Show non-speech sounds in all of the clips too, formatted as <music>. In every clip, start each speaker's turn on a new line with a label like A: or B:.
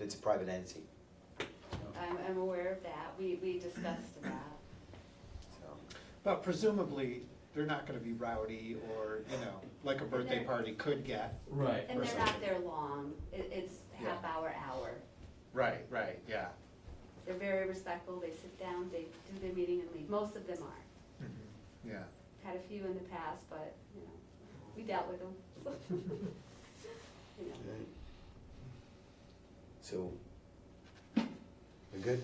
A: it's a private entity.
B: I'm, I'm aware of that, we, we discussed that.
A: So,
C: But presumably, they're not gonna be rowdy or, you know, like a birthday
B: They're-
C: party could get.
D: Right.
B: And they're
C: Right.
B: not there long, it, it's half
C: Yeah.
B: hour, hour.
C: Right, right, yeah.
B: They're very respectful, they sit down, they do their meeting and leave, most of them are.
C: Yeah.
B: Had a few in the past, but, you know, we dealt with them. <laughs> You know.
A: alright. So, we're good?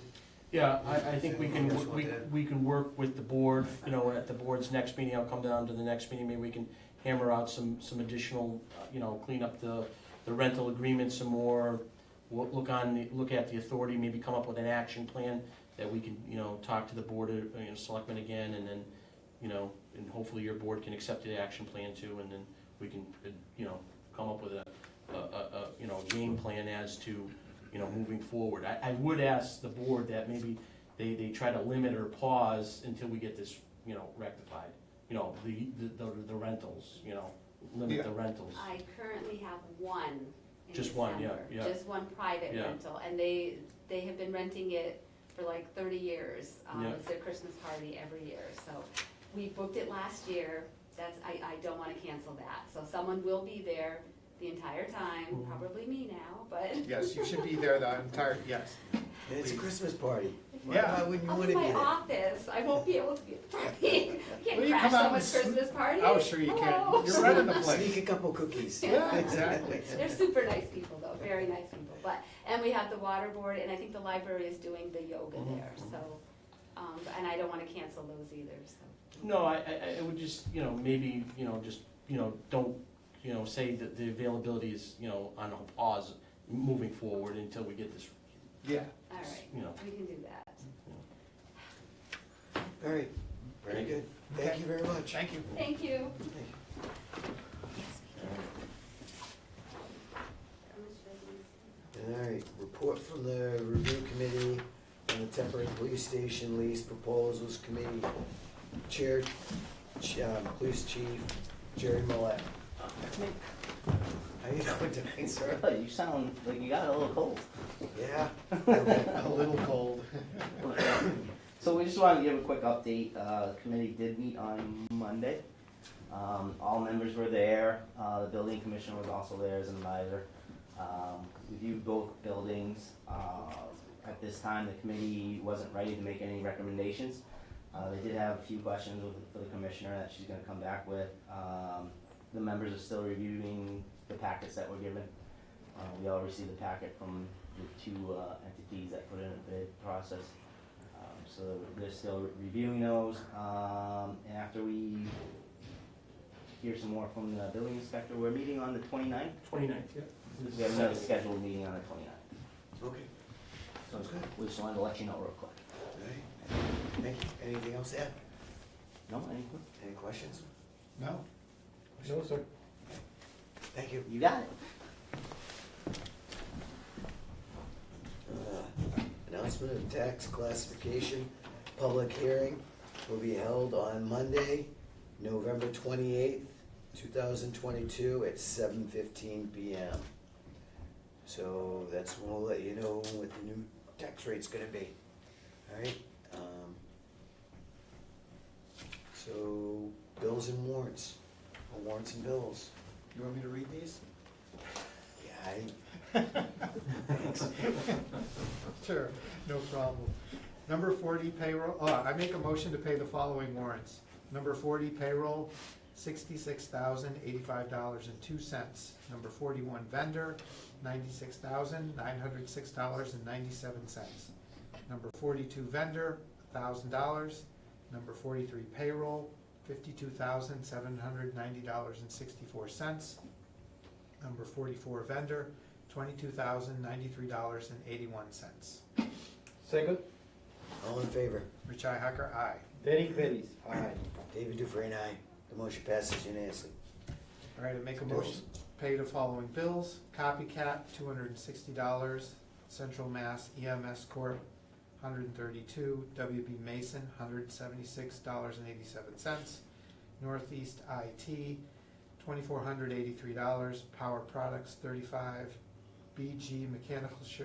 D: Yeah, I, I think we can,
A: Yes,
D: we,
A: we'll do.
D: we can work with the board, you know, at the board's next meeting, I'll come down to the next meeting, maybe we can hammer out some, some additional, uh, you know, clean up the, the rental agreement some more, wo- look on, the look at the authority, maybe come up with an action plan that we can, you know, talk to the board, uh, you know, selectmen again, and then, you know, and hopefully your board can accept the action plan too, and then we can, uh, you know, come up with a, a, a, a, you know, game plan as to, you know, moving forward. I, I would ask the board that maybe they, they try to limit or pause until we get this, you know, rectified. You know, the, the, the rentals, you know, limit the
C: Yeah.
D: rentals.
B: I currently have one in
D: Just one, yeah,
B: December.
D: yeah.
B: Just one private
D: Yeah.
B: rental, and they, they have been renting it for like thirty years. Um,
D: Yeah.
B: It's their Christmas party every year, so we booked it last year, that's, I, I don't wanna cancel that. So someone will be there the entire time,
D: Mhm.
B: probably me now, but.
C: Yes, you should be there the entire, yes.
A: And It's a
C: Please.
A: Christmas party. Why-
C: Yeah.
A: Why wouldn't you
B: <laughs> I'll
A: wanna
B: be
A: be
B: my
A: there?
B: office, I won't be able to be <laughs> at the party. I
C: Will
B: Can't
C: you
B: crash
C: come out and
B: someone's
C: s-
B: Christmas party.
C: Oh, sure you
B: Hello.
C: can. You're running the
A: Sneak
C: place.
A: a couple cookies.
C: Yeah, exactly.
B: <laughs> They're super nice people though, very nice people, but, and we have the water board, and I think the library is doing the yoga
D: Mhm,
B: there, so, um, and I don't wanna cancel those either, so.
D: No, I, I, I would just, you know, maybe, you know, just, you know, don't, you know, say that the availability is, you know, on a pause moving forward until we get this,
C: Yeah.
B: All
D: You know.
B: right, we can do that.
D: you know,
A: All right, very good. Thank you very much.
C: Thank you.
B: Thank you.
A: All right, report from the review committee on the temporary police station lease proposals committee. Chair, Ch- uh, Police Chief Jerry Millet. How you doing tonight, sir? <laughs>
E: Oh, you sound like you got a little cold.
A: Yeah?
C: A little cold.
E: <coughs> So we just wanted to give a quick update. Uh, the committee did meet on Monday. Um, all members were there. Uh, the building commissioner was also there as an advisor. Um, we viewed both buildings. Uh, at this time, the committee wasn't ready to make any recommendations. Uh, they did have a few questions with- for the commissioner that she's gonna come back with. Um, the members are still reviewing the packets that were given. Uh, we all received a packet from the two, uh, entities that put in a bid process. Um, so they're still reviewing those, um, and after we hear some more from the building inspector, we're meeting on the 29th.
D: 29th.
E: We have another scheduled meeting on the 29th.
A: Okay, Sounds good.
E: We just wanted to let you know real quick.
A: all right. Thank you. Anything else, Ed?
E: No, anything?
A: Any questions?
C: No?
D: No, sir.
A: Thank you.
E: You got it.
A: Uh, Announcement of tax classification, public hearing will be held on Monday, November twenty-eighth, two thousand twenty-two at seven fifteen P M. So that's when we'll let you know what the new tax rate's gonna be, alright? um, So, bills and warrants, or warrants and bills,
C: You want me to read these?
A: yeah, I,
C: <laughs> Sure, no problem. Number forty payroll, oh, I make a motion to pay the following warrants. Number forty payroll, sixty-six thousand eighty-five dollars and two cents. Number forty-one vendor, ninety-six thousand nine hundred six dollars and ninety-seven cents. Number forty-two vendor, thousand dollars. Number forty-three payroll, fifty-two thousand seven hundred ninety dollars and sixty-four cents. Number forty-four vendor, twenty-two thousand ninety-three dollars and eighty-one cents.
F: Second,
A: all in favor?
C: Richi Hacker, aye.
F: Derek Bellis, aye.
A: David Dufresne, aye. The motion passes unanimously.
C: All right, I make a
A: Bills.
C: motion, pay the following bills. Copycat, two hundred and sixty dollars. Central Mass EMS Corp., hundred and thirty-two. WB Mason, hundred and seventy-six dollars and eighty-seven cents. Northeast IT, twenty-four hundred eighty-three dollars. Power Products, thirty-five. BG Mechanical Sh-